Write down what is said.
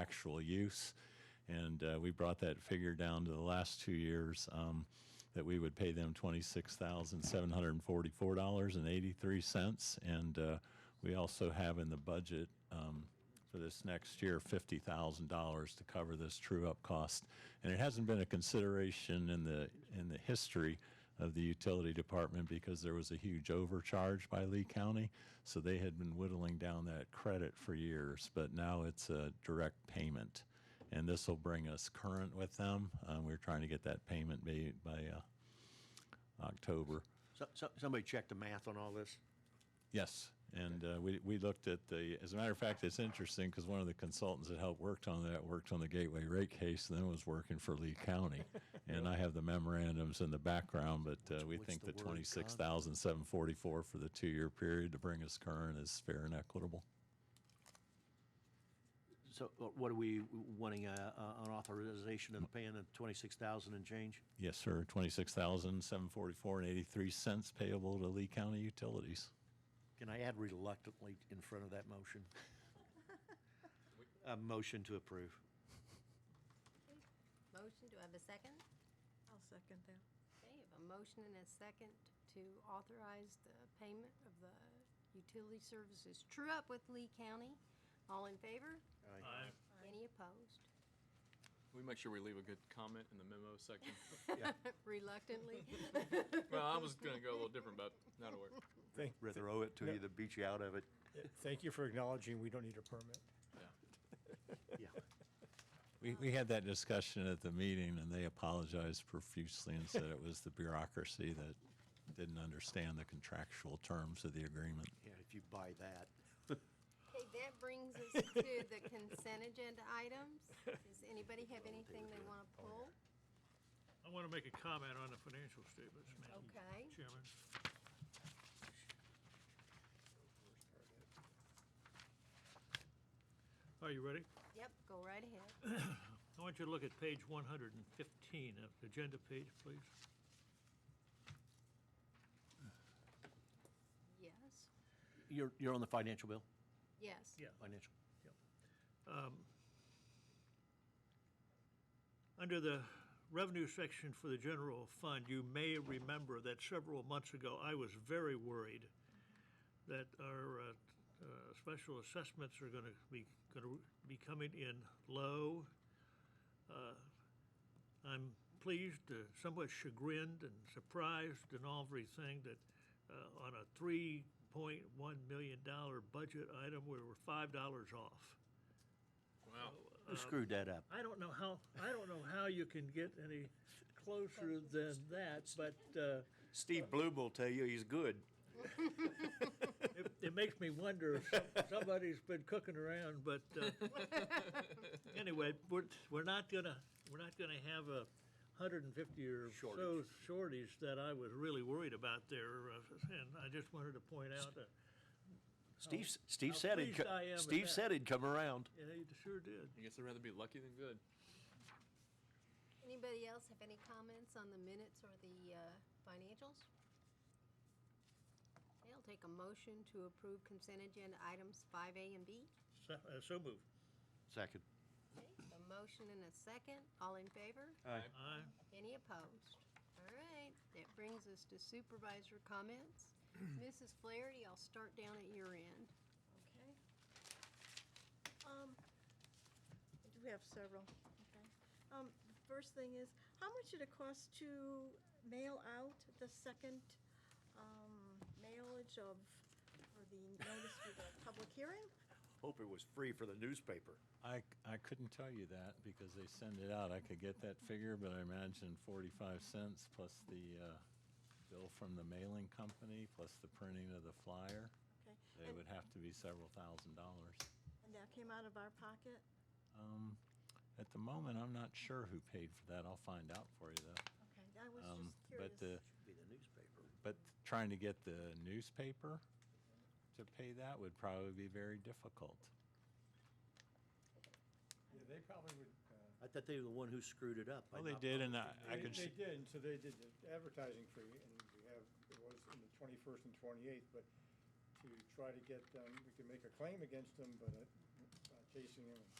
actual use. And uh, we brought that figure down to the last two years um, that we would pay them $26,744.83. And uh, we also have in the budget um, for this next year $50,000 to cover this true up cost. And it hasn't been a consideration in the, in the history of the utility department because there was a huge overcharge by Lee County. So they had been whittling down that credit for years, but now it's a direct payment. And this will bring us current with them. Um, we're trying to get that payment made by uh, October. So, so, somebody check the math on all this? Yes, and uh, we we looked at the. As a matter of fact, it's interesting because one of the consultants that helped worked on that worked on the Gateway rate case, and then was working for Lee County. and I have the memorandums in the background, but uh, we what's think the the word, Con? twenty six thousand seven forty four for the two year period to bring us current is fair and equitable. So uh, what are we wanting, uh, uh, an authorization of paying of 26,000 and change? Yes, sir. Twenty six thousand seven forty four and eighty three cents payable to Lee County Utilities. Can I add reluctantly in front of that motion? A motion to approve. Motion, do I have a second? I'll second that. Okay, I have a motion and a second to authorize the payment of the utility services true up with Lee County. All in favor? Aye. Any opposed? We make sure we leave a good comment in the memo section. Reluctantly? well, I was going to go a little different, but that'll work. Thank, Rather owe it to you than beat you out of it. thank you for acknowledging we don't need a permit. Yeah. Yeah. We, we had that discussion at the meeting, and they apologized profusely and said it was the bureaucracy that didn't understand the contractual terms of the agreement. Yeah, if you buy that. Okay, that brings us to the consent agenda items. Does anybody have anything they want to pull? I want to make a comment on the financial statements, Madam Okay. Chairman. Are you ready? Yep, go right ahead. I want you to look at page 115 of the agenda page, please. Yes, You're, you're on the financial bill? yes. Financial. Um, Under the revenue section for the general fund, you may remember that several months ago, I was very worried that our uh, uh, special assessments are going to be, going to be coming in low. Uh, I'm pleased, uh, somewhat chagrined and surprised and all everything that uh, on a $3.1 million budget item, we were $5 off. Wow. Who screwed that up? I don't know how, I don't know how you can get any closer than that, but uh, Steve Bloom will tell you he's good. it, it makes me wonder if some- somebody's been cooking around, but uh, anyway, we're, we're not gonna, we're not gonna have a hundred and fifty or so Shortage. shortage that I was really worried about there, uh, and I just wanted to point out uh, that, Steve, s- Steve how said he'd, pleased I co- am with Steve that. said he'd come around. yeah, you sure did. I guess I'd rather be lucky than good. Anybody else have any comments on the minutes or the uh, financials? Okay, I'll take a motion to approve consent agenda items 5A and B. So- uh, So moved. Second. Okay, A motion and a second. All in favor? Aye. Any opposed? All right, that brings us to supervisor comments. Mrs. Flaherty, I'll start down at your end. Okay. Um, I do have several, okay. Um, the first thing is, how much did it cost to mail out the second, um, mailage of, or the notice for the public hearing? Hope it was free for the newspaper. I, I couldn't tell you that because they send it out. I could get that figure, but I imagine 45 cents plus the uh, bill from the mailing company, plus the printing of the flyer. Okay. It and- would have to be several thousand dollars. Um, And that came out of our pocket? At the moment, I'm not sure who paid for that. I'll find out for you, though. Okay, I was Um, just But curious. the, Should be the newspaper. But trying to get the newspaper to pay that would probably be very difficult. Yeah, they probably would. uh, I thought they were the one who screwed it up. by Well, they not- did, and I I They could, they see- did, and so they did the advertising fee, and we have, it was in the twenty-first and twenty-eighth, but to try to get them, we could make a claim against them, but uh, uh, chasing them,